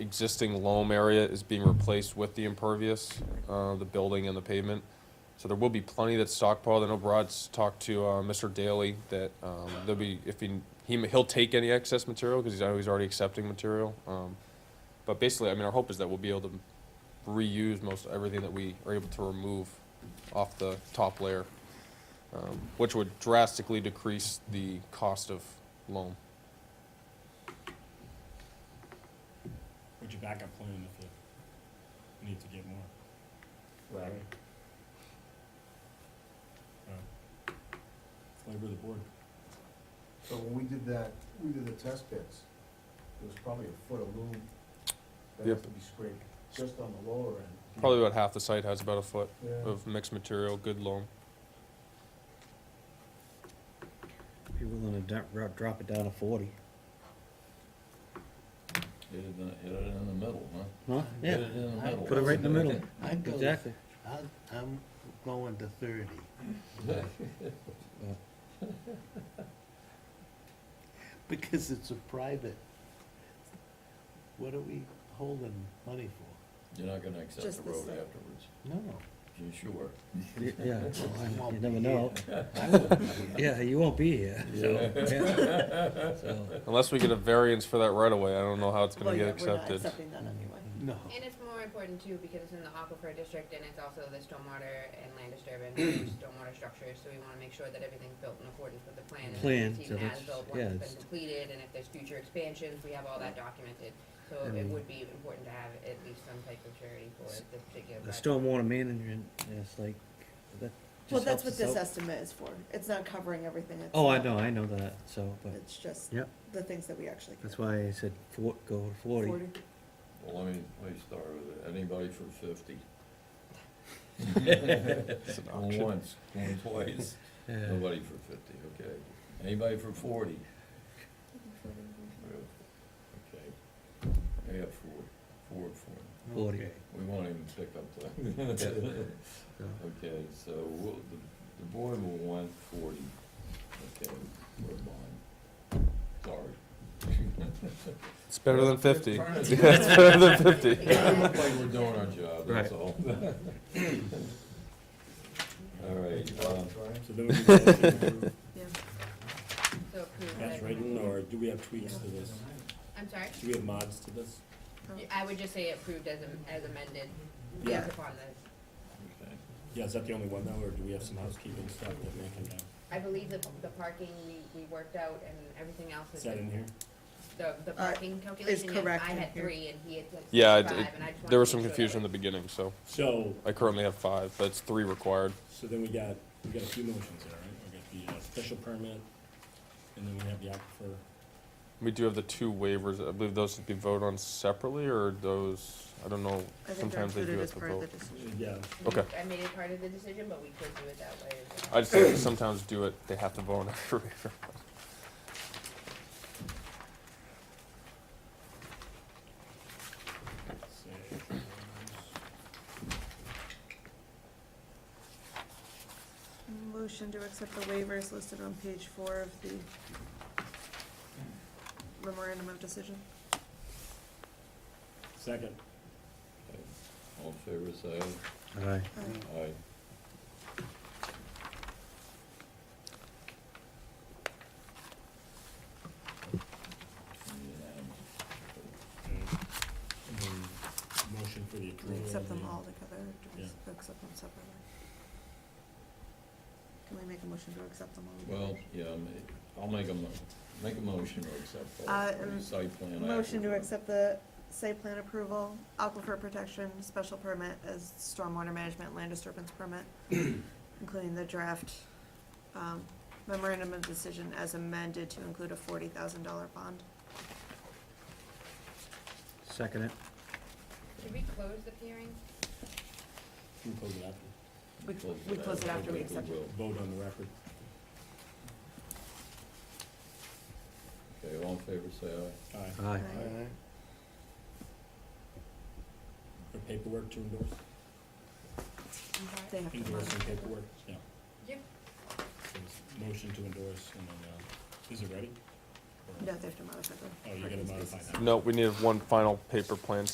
existing loam area is being replaced with the impervious, uh, the building and the pavement. So there will be plenty that's stockpiled. I know Brad's talked to, uh, Mr. Daly that, um, there'll be, if he, he, he'll take any excess material, cause he's, I know he's already accepting material. Um, but basically, I mean, our hope is that we'll be able to reuse most everything that we are able to remove off the top layer, um, which would drastically decrease the cost of loam. What's your backup plan if you need to get more? Larry? uh, Flavor of the board. So when we did that, we did the test pits, there was probably a foot of loom that has Yep. to be scraped, just on the lower end. Probably uh, about half the site has about a foot Yeah, of mixed material, good loam. Be willing to drop, drop, drop it down to forty. Hit it in, hit it in the middle, huh? Huh? Hit Yeah, it in the middle. put it right in the middle. I'd go, Exactly. I'd- I'm going to thirty. Because it's a private, what are we holding money for? You're not gonna accept the Just the road site. afterwards, No, you sure? Y- Yeah, I you won't never be know. I wouldn't be here. Yeah, you won't be here, so. yeah. So, Unless we get a variance for that right away, I don't know how it's Well, gonna get yeah, We're not accepted. accepting Mm-hmm. that anyway. No, And it's more important too because it's in the aquifer district and it's also the stormwater and land disturbance, and stormwater structures, so we wanna make sure that everything's built in accordance with the plan. and that Plan, it's so even that's- as-built yeah, Once it's- it's been completed, and if there's future expansions, we have all that documented. So it Mm. would be important to have at least some type of surety for this particular the project. stormwater management, it's like, that Well, just that's helps what us this out. estimate is for. It's not covering everything. It's- Oh, I know, I know that, so, but, It's just Yep. the things that we actually. that's can- why I said four, go to forty. Well, let me, let me start with it, anybody for fifty? It's an Going auction. once, going twice, Yeah. nobody for fifty, okay, anybody for forty? Okay, I got four, four for him, Forty. okay. we won't even pick up that. So, Okay, so we'll, the, the board will want forty, okay, we're bond, sorry. It's better than fifty. Turn It's it- better than fifty. Look like we're doing our job, Right. that's all. All right, um, Brian? So there would be a motion to approve Yeah. So approve That's the- right, Mm. or do we have tweaks to this? I'm sorry? Do we have mods to this? Y- I would just say approved as am- as amended, Yeah. based upon the, okay. Yeah, is that the only one though, or do we have some housekeeping stuff that may come down? I believe the, the parking we, we worked out and everything else Is is. that in here? The, the parking calculation, yes, Uh, correct I in had here. three and he had like Yeah, five, it- and I it- just wanted there was to some make sure that confusion in we- the beginning, so So, I currently have five, but it's three required. so then we got, we got a few motions there, right? We got the uh, special permit, and then we have the aquifer. We do have the two waivers. I believe those should be voted on separately, or those, I don't know, I think they're sometimes they do included have as to part of the vote. decision. Yeah, Okay. I made it part of the decision, but we could do it that way as well. I just think sometimes do it, they have to vote on every waiver. so, Motion to accept the waivers listed on page four of the memorandum of decision. second. All in favor, say aye. All right. Uh, Aye. Okay. And then Motion for the Do we approval. accept them of the- all together? or Do we Yeah. s- accept them separately? Can we make a motion to accept them all? together? Well, yeah, ma- I'll make a mo- make a motion to accept Uh, all um, the site plan. Motion to aquifer. accept the site plan approval, aquifer protection, special permit as stormwater management land disturbance permit, including the draft um, memorandum of decision as amended to include a forty thousand dollar bond. Second it. Should we close the hearing? Can we close it after? We we close it after we accept it. will. Vote on the record. Okay, all in favor, say aye. Aye. Aye. Aye. For paperwork to endorse? They have to. Endorse and modify it. paperwork, yeah. Yep. So it's Motion to endorse, and then, uh, is it ready? or? No, they have to modify them. Oh, you gotta modify that. No, we need one final paper plan